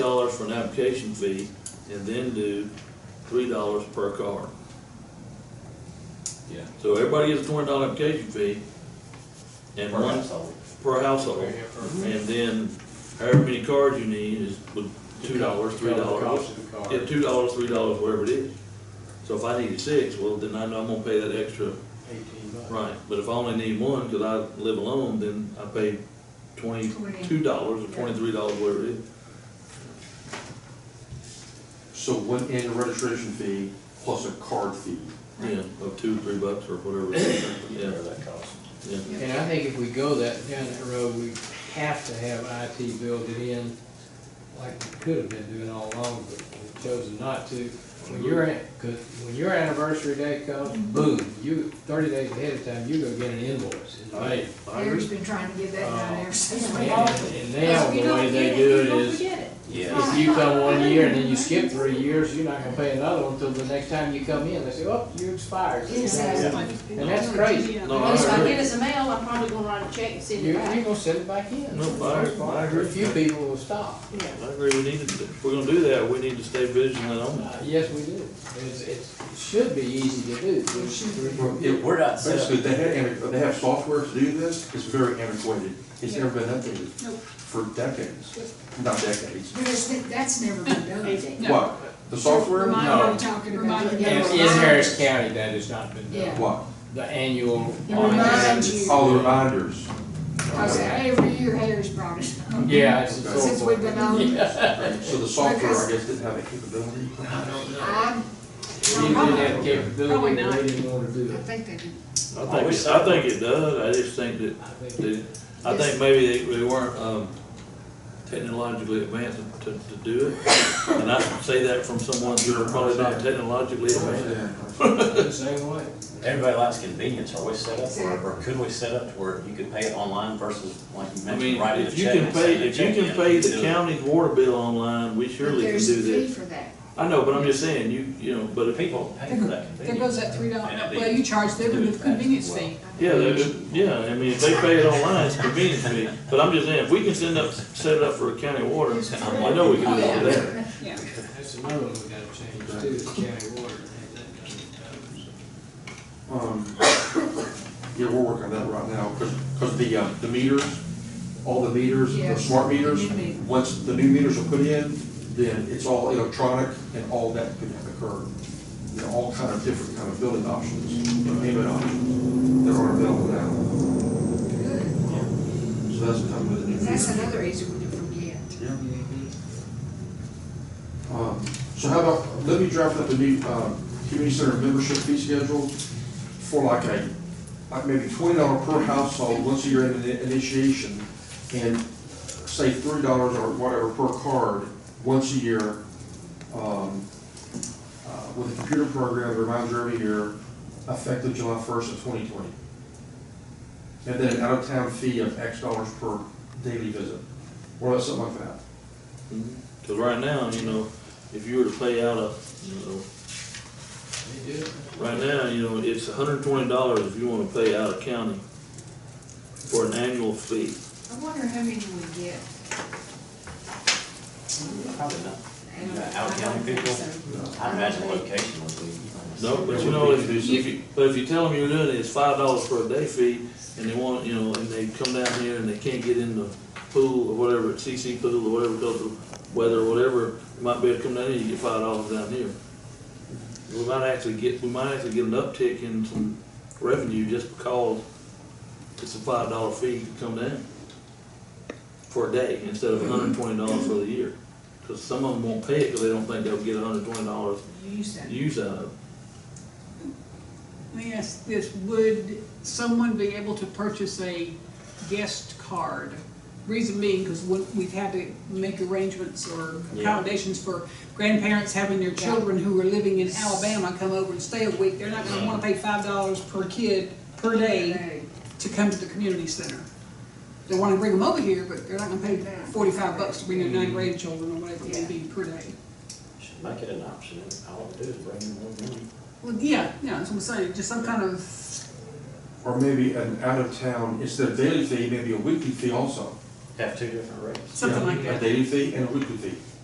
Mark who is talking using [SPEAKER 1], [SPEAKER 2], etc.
[SPEAKER 1] dollars for an application fee and then do three dollars per car.
[SPEAKER 2] Yeah.
[SPEAKER 1] So everybody gets a twenty dollar application fee and
[SPEAKER 2] Per
[SPEAKER 1] one
[SPEAKER 2] household.
[SPEAKER 1] per household. And then however many cars you need is with two dollars, three dollars.
[SPEAKER 3] Cost of the car.
[SPEAKER 1] Yeah, two dollars, three dollars, whatever it is. So if I need six, well, then I know I'm gonna pay that extra,
[SPEAKER 3] Eighteen bucks.
[SPEAKER 1] right, but if I only need one, cause I live alone, then I pay twenty-two dollars or twenty-three dollars, whatever it is.
[SPEAKER 2] So one annual registration fee plus a card fee.
[SPEAKER 1] Yeah, of two, three bucks or whatever. it is. Yeah,
[SPEAKER 2] Whatever that costs.
[SPEAKER 1] yeah.
[SPEAKER 4] And I think if we go that, down that road, we have to have IT built in, like we could have been doing all along, but we've chosen not to. When your, an- cause when your anniversary day comes, boom, you, thirty days ahead of time, you're gonna get an invoice in May.
[SPEAKER 5] Eric's been trying to get that done ever since. we
[SPEAKER 4] And
[SPEAKER 5] bought it.
[SPEAKER 4] and now, the way they do it is, if you come one year and then you skip three years, you're not gonna pay another one until the next time you come in, they say, oh, you expired.
[SPEAKER 5] Exactly.
[SPEAKER 4] And that's crazy.
[SPEAKER 1] No, I
[SPEAKER 6] Unless I
[SPEAKER 1] agree.
[SPEAKER 6] get us a mail, I'm probably gonna write a check and
[SPEAKER 4] You're,
[SPEAKER 6] send it
[SPEAKER 4] you're
[SPEAKER 6] back.
[SPEAKER 4] gonna send it back in.
[SPEAKER 1] No, I- I agree.
[SPEAKER 4] A few people will stop.
[SPEAKER 6] Yeah.
[SPEAKER 1] I agree, we need to, if we're gonna do that, we need to stay vigilant on that.
[SPEAKER 4] Uh, Yes, we do. It's, it's, it should be easy to do.
[SPEAKER 5] It should be.
[SPEAKER 2] It-
[SPEAKER 7] We're not set
[SPEAKER 2] Basically,
[SPEAKER 7] up,
[SPEAKER 2] they have, they have software to do this, it's very antiquated, it's never been updated for decades, not decades.
[SPEAKER 5] But it's, that's never been done.
[SPEAKER 2] What, the software?
[SPEAKER 5] Remind me
[SPEAKER 2] No.
[SPEAKER 5] talking about.
[SPEAKER 6] Remind
[SPEAKER 5] it.
[SPEAKER 6] me.
[SPEAKER 4] In,
[SPEAKER 6] Yeah.
[SPEAKER 4] in Harris County, that has not been
[SPEAKER 5] Yeah.
[SPEAKER 4] done.
[SPEAKER 2] What?
[SPEAKER 4] The annual.
[SPEAKER 5] It reminds you.
[SPEAKER 2] All the reminders.
[SPEAKER 5] Cause every year Harris brought it up.
[SPEAKER 4] Yeah, it's. it's
[SPEAKER 5] Since
[SPEAKER 4] awful.
[SPEAKER 5] we've been on it.
[SPEAKER 4] Yeah.
[SPEAKER 2] Right, So the software, I guess, didn't have a capability.
[SPEAKER 4] I don't know.
[SPEAKER 5] I,
[SPEAKER 4] We didn't have capability,
[SPEAKER 6] Probably
[SPEAKER 4] we
[SPEAKER 6] not.
[SPEAKER 4] didn't want to do
[SPEAKER 5] I
[SPEAKER 4] it.
[SPEAKER 5] think they did.
[SPEAKER 1] I
[SPEAKER 7] Oh,
[SPEAKER 1] think, it- I think it does, I just think that,
[SPEAKER 4] I think
[SPEAKER 1] that- I think maybe they, they weren't, um, technologically advanced to, to do it. And I say that from someone who's probably not technologically advanced.
[SPEAKER 4] it's the same way.
[SPEAKER 7] everybody likes convenience, are we set up, or, or could we set up to where you could pay it online versus, like you
[SPEAKER 1] I
[SPEAKER 7] mentioned,
[SPEAKER 1] mean,
[SPEAKER 7] writing a
[SPEAKER 1] if you
[SPEAKER 7] check?
[SPEAKER 1] can
[SPEAKER 7] and
[SPEAKER 1] pay,
[SPEAKER 7] sending a
[SPEAKER 1] if you
[SPEAKER 7] check
[SPEAKER 1] can
[SPEAKER 7] in,
[SPEAKER 1] pay
[SPEAKER 7] you
[SPEAKER 1] the
[SPEAKER 7] do it.
[SPEAKER 1] county's water bill online, we surely can
[SPEAKER 5] There's
[SPEAKER 1] do
[SPEAKER 5] a fee
[SPEAKER 1] this.
[SPEAKER 5] for that.
[SPEAKER 1] I know, but I'm just saying, you, you know, but if
[SPEAKER 7] People pay for that
[SPEAKER 8] There
[SPEAKER 7] convenience.
[SPEAKER 8] goes that three dollar,
[SPEAKER 7] And it'd be-
[SPEAKER 8] well, you charge
[SPEAKER 7] do
[SPEAKER 8] them
[SPEAKER 7] it
[SPEAKER 8] the
[SPEAKER 7] fast.
[SPEAKER 8] convenience fee.
[SPEAKER 1] Yeah, they, do- yeah, I mean, if they pay it online, it's convenient to me, but I'm just saying, if we can send up, set it up for county water, I know we can do it there.
[SPEAKER 8] Yeah.
[SPEAKER 4] That's another one we gotta change too, is county water. Had that done in times.
[SPEAKER 2] Um, Yeah, we're working on that right now, because, the, uh, the meters, all the meters, the
[SPEAKER 5] Yeah,
[SPEAKER 2] smart meters,
[SPEAKER 5] the new meter.
[SPEAKER 2] once the new meters are put in, then it's all electronic and all that could occur. You know, all kind of different kind of billing options, and payment options that aren't available now.
[SPEAKER 5] Good.
[SPEAKER 2] So that's coming with the new
[SPEAKER 5] That's
[SPEAKER 2] meter.
[SPEAKER 5] another easy one to forget.
[SPEAKER 2] Yeah. Um, So how about, let me draft up a new, um, community center membership fee schedule for like a, like maybe twenty dollar per household, once a year in the initiation, and say three dollars or whatever per card, once a year, um, uh, with a computer program that reminds you every year, effective July first of twenty twenty. And then an out-of-town fee of X dollars per daily visit, or something like that.
[SPEAKER 1] Cause right now, you know, if you were to pay out a, you know,
[SPEAKER 4] They do it.
[SPEAKER 1] right now, you know, it's hundred and twenty dollars if you wanna pay out of county for an annual fee.
[SPEAKER 5] I wonder how many we get.
[SPEAKER 7] Probably not.
[SPEAKER 5] And
[SPEAKER 7] Yeah,
[SPEAKER 5] I
[SPEAKER 7] out of
[SPEAKER 5] don't
[SPEAKER 7] county
[SPEAKER 5] think
[SPEAKER 7] people?
[SPEAKER 5] so.
[SPEAKER 7] I imagine
[SPEAKER 5] don't think-
[SPEAKER 7] location would be.
[SPEAKER 1] No, but you know, if you, if you, but if you tell them you're doing it, it's five dollars for a day fee, and they want, you know, and they come down here and they can't get in the pool or whatever, CC pool or whatever, because of weather or whatever, you might be able to come down here, you get five dollars down here. We might actually get, we might actually get an uptick in some revenue just because it's a five dollar fee to come down for a day instead of hundred and twenty dollars for the year. Cause some of them won't pay it because they don't think they'll get hundred and twenty dollars
[SPEAKER 5] You used that.
[SPEAKER 1] use out of it.
[SPEAKER 8] Let me ask this, would someone be able to purchase a guest card? Reason being, because we've had to make arrangements or accommodations for grandparents having their children who are living in Alabama come over and stay a week. They're not gonna wanna pay five dollars per kid per day to come to the community center. They wanna bring them over here, but they're not gonna pay forty-five bucks to bring their nine grandchildren or whatever it may be per day.
[SPEAKER 7] Should make it an option, all it do is bring in more money.
[SPEAKER 8] Well, yeah, yeah, that's what I'm saying, just some kind of
[SPEAKER 2] Or maybe an out-of-town, instead of daily fee, maybe a weekly fee also.
[SPEAKER 7] Have two different rates.
[SPEAKER 8] Something like
[SPEAKER 2] A
[SPEAKER 8] that.
[SPEAKER 2] daily fee and a weekly fee.